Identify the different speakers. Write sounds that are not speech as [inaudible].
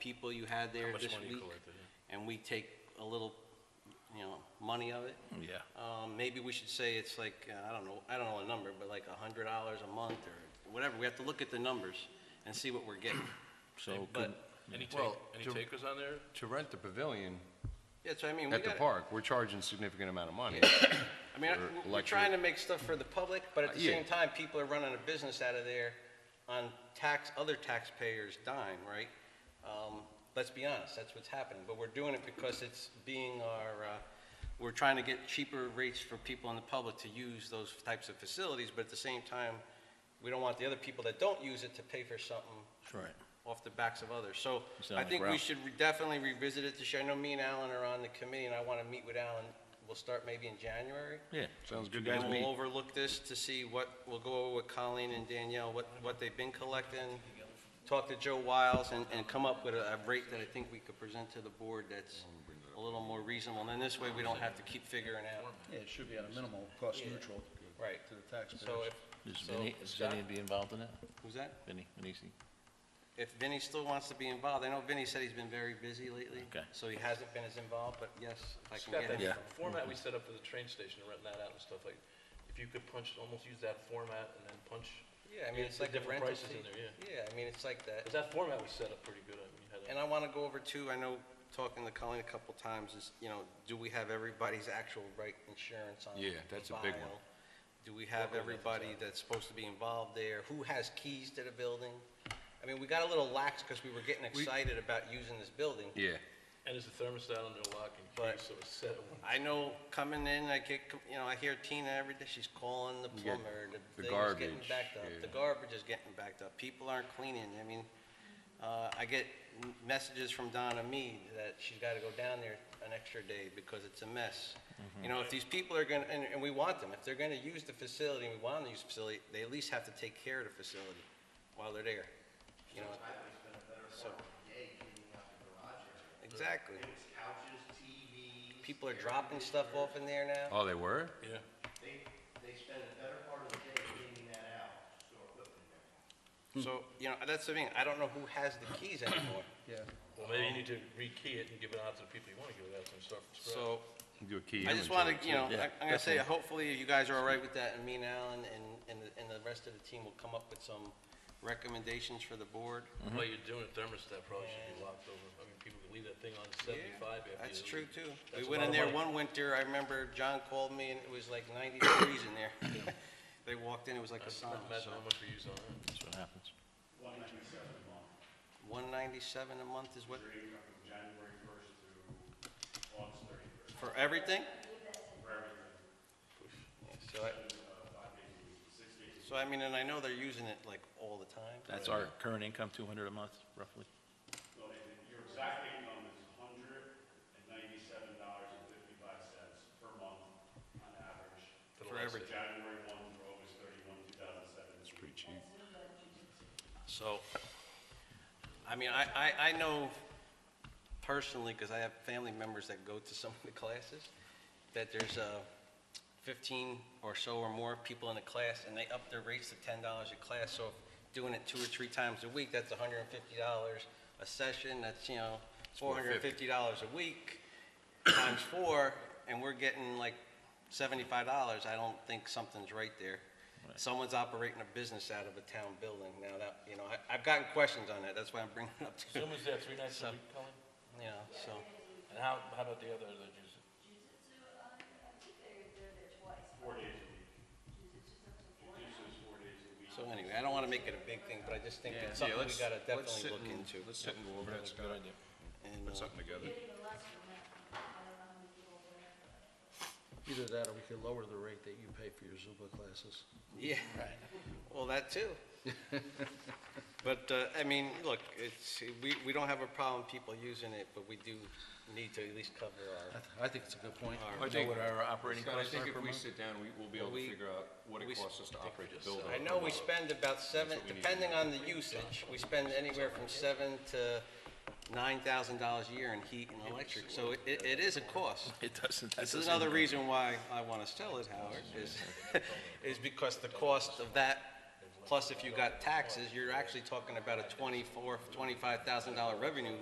Speaker 1: people you had there
Speaker 2: How much
Speaker 1: this
Speaker 2: money you
Speaker 1: week,
Speaker 2: collected, yeah.
Speaker 1: and we take a little, you know, money of it.
Speaker 3: Mm,
Speaker 2: Yeah.
Speaker 1: Um, maybe we should say it's like, uh, I don't know, I don't know a number, but like a hundred dollars a month or whatever. We have to look at the numbers and see what we're getting.
Speaker 3: So
Speaker 1: But,
Speaker 3: could-
Speaker 2: Any take,
Speaker 4: Well,
Speaker 2: any
Speaker 4: to-
Speaker 2: takers on there?
Speaker 4: To rent the pavilion
Speaker 1: yeah, so I mean, we
Speaker 4: at the
Speaker 1: got,
Speaker 4: park, we're charging significant amount of money.
Speaker 1: I mean, I-
Speaker 4: for
Speaker 1: we're- we're
Speaker 4: luxury.
Speaker 1: trying to make stuff for the public, but at
Speaker 4: Uh,
Speaker 1: the
Speaker 4: yeah.
Speaker 1: same time, people are running a business out of there on tax, other taxpayers' dime, right? Um, let's be honest, that's what's happening, but we're doing it because it's being our, uh, we're trying to get cheaper rates for people in the public to use those types of facilities, but at the same time, we don't want the other people that don't use it to pay for something
Speaker 3: That's right.
Speaker 1: off the backs of others. So
Speaker 3: You sound
Speaker 1: I
Speaker 3: like
Speaker 1: think we
Speaker 3: Ralph.
Speaker 1: should re- definitely revisit it this year. I know me and Alan are on the committee, and I want to meet with Alan. We'll start maybe in January.
Speaker 3: Yeah.
Speaker 4: Sounds good to
Speaker 1: And
Speaker 4: me.
Speaker 1: we'll overlook this to see what, we'll go over with Colleen and Danielle, what, what they've been collecting, talk to Joe Wiles, and, and come up with a a rate that I think we could present to the board that's a little more reasonable. And then this way, we don't have to keep figuring out.
Speaker 5: Yeah, it should be at a minimal, cost neutral
Speaker 1: Right.
Speaker 5: to the taxpayers.
Speaker 1: So if,
Speaker 3: Is
Speaker 1: So,
Speaker 3: Vinny, is Vinny be involved in that?
Speaker 1: who's that?
Speaker 3: Vinny, Vinisi?
Speaker 1: If Vinny still wants to be involved, I know Vinny said he's been very busy lately.
Speaker 3: Okay.
Speaker 1: So he hasn't been as involved, but yes, if I can
Speaker 2: Scott,
Speaker 1: get him.
Speaker 2: that format we set up for the train station, to rent that out and stuff like, if you could punch, almost use that format and then punch,
Speaker 1: Yeah, I mean,
Speaker 2: Yeah,
Speaker 1: it's
Speaker 2: the
Speaker 1: like the
Speaker 2: different
Speaker 1: rental
Speaker 2: prices
Speaker 1: fee.
Speaker 2: in there, yeah.
Speaker 1: I mean, it's like that.
Speaker 2: because that format was set up pretty good, I mean, you had a-
Speaker 1: And I want to go over too, I know, talking to Colleen a couple times, is, you know, do we have everybody's actual right insurance on?
Speaker 4: Yeah, that's a big one.
Speaker 1: file? Do we have everybody that's supposed to be involved there? Who has keys to the building? I mean, we got a little lax because we were getting excited about using this building.
Speaker 4: Yeah,
Speaker 2: and it's a thermostat under lock and
Speaker 1: But-
Speaker 2: key, so it's set at one.
Speaker 1: I know, coming in, I get, you know, I hear Tina every day, she's calling the
Speaker 4: get
Speaker 1: plumber, the
Speaker 4: the
Speaker 1: thing's getting
Speaker 4: garbage,
Speaker 1: backed up. The
Speaker 4: yeah.
Speaker 1: garbage is getting backed up, people aren't cleaning, I mean, uh, I get m- messages from Donna Mead that she's gotta go down there an extra day because it's a mess.
Speaker 4: Mm-hmm.
Speaker 1: You know, if these people are gonna, and, and we want them, if they're gonna use the facility, and we want them to use the facility, they at least have to take care of the facility while they're there, you know? So. Exactly.
Speaker 6: couches, TVs.
Speaker 1: People are dropping stuff off in there now.
Speaker 4: oh, they were?
Speaker 2: Yeah.
Speaker 6: They, they spend a better part of the day cleaning that out, store equipment there.
Speaker 1: So, you know, that's the thing, I don't know who has the keys anymore.
Speaker 5: Yeah,
Speaker 2: Well, maybe you need to rekey it and give it out to the people you want to give it out to and start from scratch.
Speaker 1: So,
Speaker 4: Do a key
Speaker 1: I just
Speaker 4: inventory,
Speaker 1: wanna, you know,
Speaker 3: Yeah,
Speaker 1: I- I'm gonna say, hopefully you guys are all right with that, and me and Alan and, and, the- and the rest of the team will come up with some recommendations for the board.
Speaker 3: Mm-hmm.
Speaker 2: The way you're doing a thermostat probably should be locked over, I mean, people could leave that thing on seventy-five after you.
Speaker 1: That's true too. We
Speaker 2: That's a
Speaker 1: went
Speaker 2: lot
Speaker 1: in
Speaker 2: of
Speaker 1: there
Speaker 2: money.
Speaker 1: one winter, I remember John called me and it was like ninety degrees in there. [laughs] They walked in, it was like a
Speaker 2: I just
Speaker 1: sauna,
Speaker 2: imagine
Speaker 1: so,
Speaker 2: how much we use on it.
Speaker 3: That's what happens.
Speaker 1: one ninety-seven a month is what,
Speaker 7: January first through August thirty-first,
Speaker 1: for everything?
Speaker 7: for everything,
Speaker 1: So I,
Speaker 7: uh, five days a week, six days a week.
Speaker 1: so I mean, and I know they're using it like all the time.
Speaker 3: That's our current income, 200 a month roughly.
Speaker 7: So they- your exact income is hundred and ninety-seven dollars and fifty-five cents per month on average.
Speaker 1: For last everything.
Speaker 7: January one through August thirty-one, two thousand seventeen. It's pretty cheap.
Speaker 1: So, I mean, I, I, I know personally, because I have family members that go to some of the classes, that there's uh, 15 or so or more people in the class, and they up their rates to $10 a class, so if doing it two or three times a week, that's $150 a session, that's, you know, $450 a week, times four, and we're getting like seventy-five dollars, I don't think something's right there. Someone's operating a business out of a town building now that, you know, I, I've gotten questions on that, that's why I'm bringing it up to, you
Speaker 2: Zoom is that three nights
Speaker 1: So-
Speaker 2: a week, Colin?
Speaker 1: know, so.
Speaker 2: And how, how about the other religions?
Speaker 1: So anyway, I don't wanna make it a big thing, but I just think it's something we gotta definitely look into.
Speaker 4: Let's sit and go over that, Scott.
Speaker 1: And,
Speaker 4: Put
Speaker 1: uh,
Speaker 4: something together.
Speaker 5: either that or we could lower the rate that you pay for your Zumba classes.
Speaker 1: Yeah, well, that
Speaker 4: [laughs]
Speaker 1: too. But, uh, I mean, look, it's, we, we don't have a problem people using it, but we do need to at least cover
Speaker 5: I
Speaker 1: our,
Speaker 5: th- I think it's a good point.
Speaker 1: Our-
Speaker 3: I know what our operating
Speaker 4: Scott, I
Speaker 3: costs are
Speaker 4: think
Speaker 3: per
Speaker 4: if we
Speaker 3: month.
Speaker 4: sit down, we, we'll be able
Speaker 1: We-
Speaker 4: to figure out what
Speaker 1: we
Speaker 4: it
Speaker 1: s-
Speaker 4: costs us to operate the building.
Speaker 1: I know we spend about seven, depending on the usage, we spend anywhere from seven to nine thousand dollars a year in heat and electric, so it, it it is a cost.
Speaker 3: [laughs] It doesn't, that's
Speaker 1: This is
Speaker 3: doesn't
Speaker 1: another
Speaker 3: include-
Speaker 1: reason why I want to sell it, Howard, is, [laughs] is because the cost of that, plus if you got taxes, you're actually talking about a twenty-four, twenty-five thousand dollar revenue